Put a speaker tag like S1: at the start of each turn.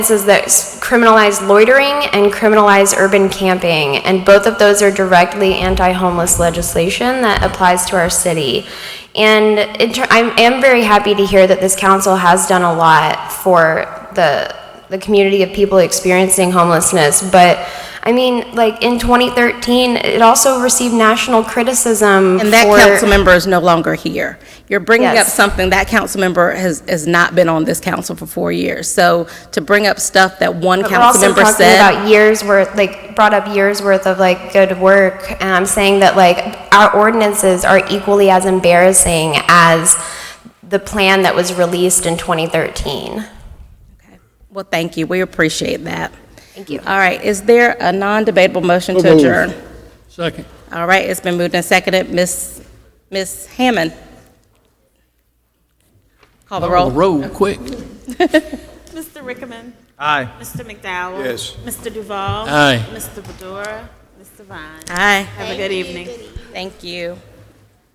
S1: ordinances that s- criminalize loitering and criminalize urban camping, and both of those are directly anti-homeless legislation that applies to our city. And in ter- I'm, am very happy to hear that this council has done a lot for the, the community of people experiencing homelessness, but, I mean, like, in 2013, it also received national criticism for...
S2: And that council member is no longer here. You're bringing up
S1: Yes.
S2: something, that council member has, has not been on this council for four years. So to bring up stuff that one
S1: But we're
S2: council
S1: also
S2: member
S1: talking
S2: said,
S1: about years worth, like, brought up years worth of like good work, and I'm saying that like our ordinances are equally as embarrassing as the plan that was released in 2013.
S2: well, thank you, we appreciate that.
S1: Thank you.
S2: All right, is there a non-debatable motion to
S3: moved.
S2: adjourn?
S3: Second.
S2: All right, it's been moved and seconded, Ms., Ms. Hammond? Call the roll.
S3: Roll quick.
S4: Mr. Rickman.
S5: Aye.
S4: Mr. McDowell.
S3: Yes.
S4: Mr. Duval.
S3: Aye.
S4: Mr. Bedora. Mr. Vine.
S2: Aye,
S4: Have a good evening.
S2: thank you.